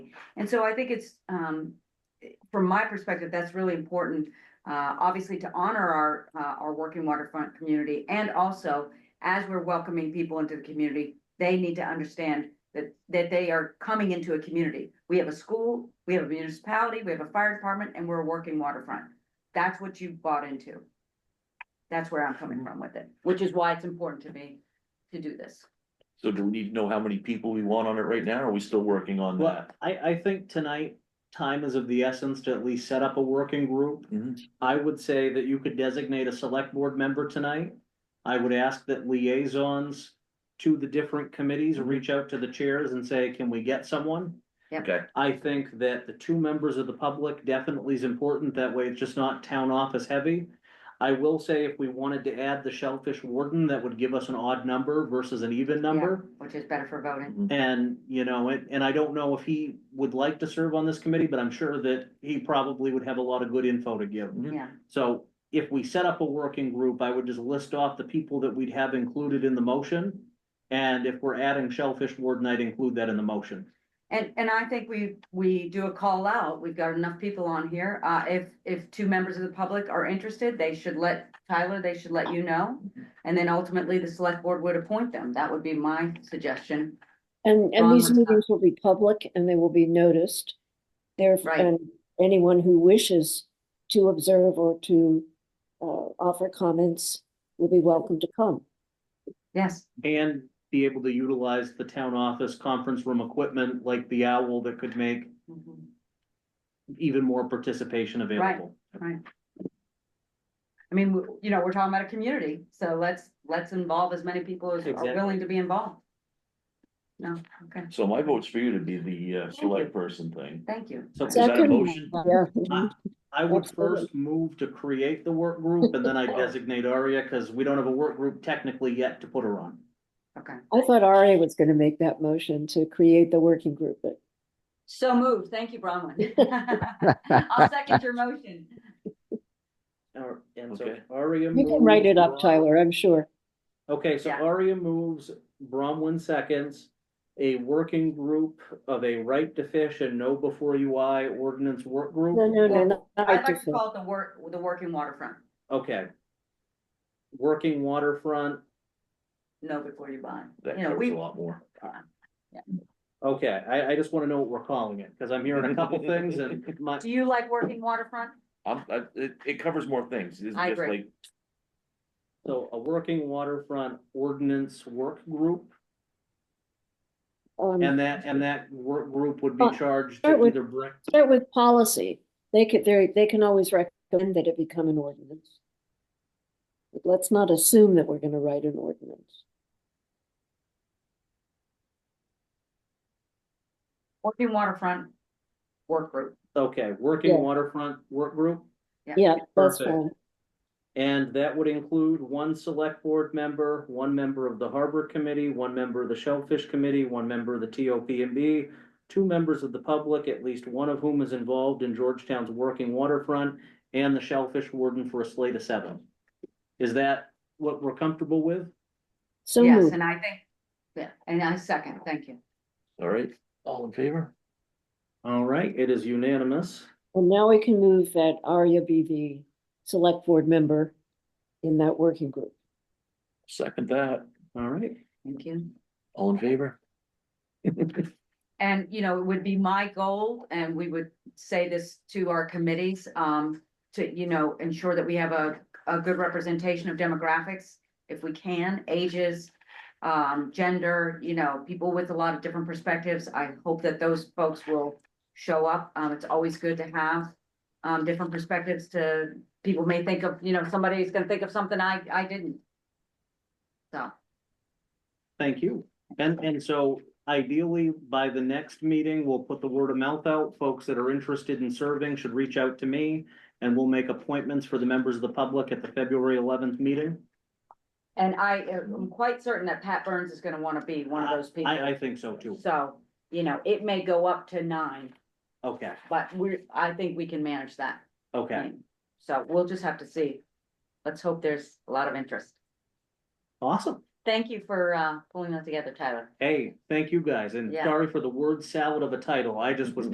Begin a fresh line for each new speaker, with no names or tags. And so I think it's, um, from my perspective, that's really important, uh, obviously to honor our, uh, our working waterfront community. And also, as we're welcoming people into the community, they need to understand that, that they are coming into a community. We have a school, we have a municipality, we have a fire department, and we're a working waterfront. That's what you bought into. That's where I'm coming from with it, which is why it's important to me to do this.
So do we need to know how many people we want on it right now? or Are we still working on
Well,
that?
I, I think tonight, time is of the essence to at least set up a working group.
Mhm.
I would say that you could designate a select board member tonight. I would ask that liaisons to the different committees, reach out to the chairs and say, can we get someone?
Yep.
Okay.
I think that the two members of the public definitely is important. That way it's just not town office heavy. I will say if we wanted to add the shellfish warden, that would give us an odd number versus an even number.
Yeah, Which is better for voting.
And, you know, and, and I don't know if he would like to serve on this committee, but I'm sure that he probably would have a lot of good info to give.
Mhm.
Yeah,
So if we set up a working group, I would just list off the people that we'd have included in the motion. And if we're adding Shellfish Warden, I'd include that in the motion.
and, and I think we, we do a call out, we've got enough people on here, uh, if, if two members of the public are interested, they should let Tyler, they should let you know. And then ultimately, the select board would appoint them, that would be my suggestion,
And, and
Ron
these
was not-
meetings will be public and they will be noticed. There,
Right.
and anyone who wishes to observe or to uh, offer comments will be welcome to come.
yes.
And be able to utilize the town office conference room equipment like the owl that could make
Mhm.
even more participation available.
I mean, w- you know, we're talking about a community, so let's, let's involve as many people as are
Exactly.
willing to be involved. No, okay,
So my vote's for you to be the uh, select person thing.
thank you.
So
Is that a
Second.
motion?
Yeah.
I would
Absolutely.
first move to create the work group and then I designate Aria, cause we don't have a work group technically yet to put her on.
Okay,
I thought Ari was going to make that motion to create the working group, but
so moved, thank you, Bronwyn. I'll second your motion.
Or- And so
Okay.
Aria.
you can write it up,
moves-
Tyler, I'm sure.
Okay, so
Yeah.
Aria moves, Bronwyn seconds, a working group of a right to fish and no before you I ordinance work
No,
group.
no, no,
Well,
not
I'd
right to
like to
fill.
call it the work, the working waterfront,
Okay. Working waterfront,
know before you buy.
That
You know,
covers
we,
a lot more.
okay, I, I just wanna know what we're calling it, cause I'm hearing a couple things and my,
do you like working waterfront?
I'm, I, it, it covers more things. It's
I
just
agree.
like,
so a working waterfront ordinance work group.
Um,
And that, and that work group would be
Uh,
charged
start
to
with-
either bring,
Start with policy. They could, they, they can always recommend that it become an ordinance. But Let's not assume that we're going to write an ordinance.
Working waterfront work group,
okay, working
Yeah.
waterfront work group.
Yeah, that's
Perfect.
fine.
And that would include one select board member, one member of the harbor committee, one member of the shellfish committee, one member of the TOPMB, two members of the public, at least one of whom is involved in Georgetown's working waterfront, and the shellfish warden for a slate of seven. Is that what we're comfortable with?
So
yes,
moved.
and I think, yeah, and I second, thank you.
all right, all in favor?
All right, it is unanimous.
And now we can move that Arya be the select board member in that working group.
Second that,
All right.
Thank you.
all in favor?
And, you know, it would be my goal, and we would say this to our committees, um, to, you know, ensure that we have a, a good representation of demographics, if we can, ages, um, gender, you know, people with a lot of different perspectives. I hope that those folks will show up. Um, it's always good to have, um, different perspectives to, people may think of, you know, somebody's gonna think of something I, I didn't. So,
Thank you. And, and so ideally, by the next meeting, we'll put the word of mouth out. Folks that are interested in serving should reach out to me. And we'll make appointments for the members of the public at the February eleventh meeting.
and I am quite certain that Pat Burns is gonna wanna be one of those people.
I, I think so too.
So, you know, it may go up to nine,
Okay,
but we're, I think we can manage that.
okay,
thing. So we'll just have to see. Let's hope there's a lot of interest.
awesome.
Thank you for, uh, pulling that together, Tyler.
Hey, thank you guys, and
Yeah.
sorry for the word salad of a title, I just was